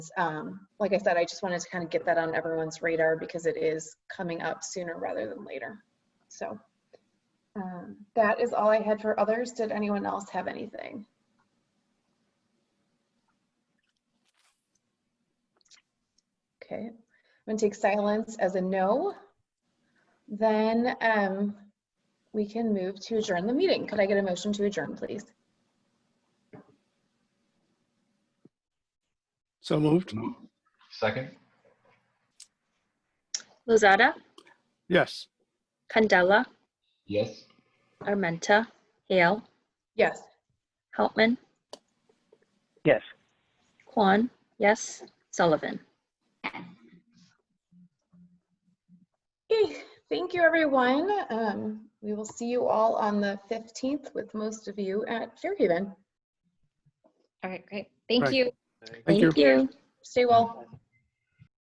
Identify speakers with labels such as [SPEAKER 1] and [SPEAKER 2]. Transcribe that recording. [SPEAKER 1] um, like I said, I just wanted to kind of get that on everyone's radar because it is coming up sooner rather than later. So um, that is all I had for others. Did anyone else have anything? Okay, I'm gonna take silence as a no. Then um, we can move to adjourn the meeting. Could I get a motion to adjourn, please?
[SPEAKER 2] So moved.
[SPEAKER 3] Second?
[SPEAKER 4] Lozada,
[SPEAKER 2] Yes.
[SPEAKER 4] Candela,
[SPEAKER 3] Yes.
[SPEAKER 4] Armenta, Hale,
[SPEAKER 1] Yes.
[SPEAKER 4] Heltman,
[SPEAKER 5] Yes.
[SPEAKER 4] Kwan, yes, Sullivan.
[SPEAKER 1] Okay, thank you, everyone. Um, we will see you all on the 15th with most of you at Fairhaven.
[SPEAKER 6] All right, great. Thank
[SPEAKER 2] Right.
[SPEAKER 6] you.
[SPEAKER 2] Thank you.
[SPEAKER 4] you.
[SPEAKER 1] Stay well.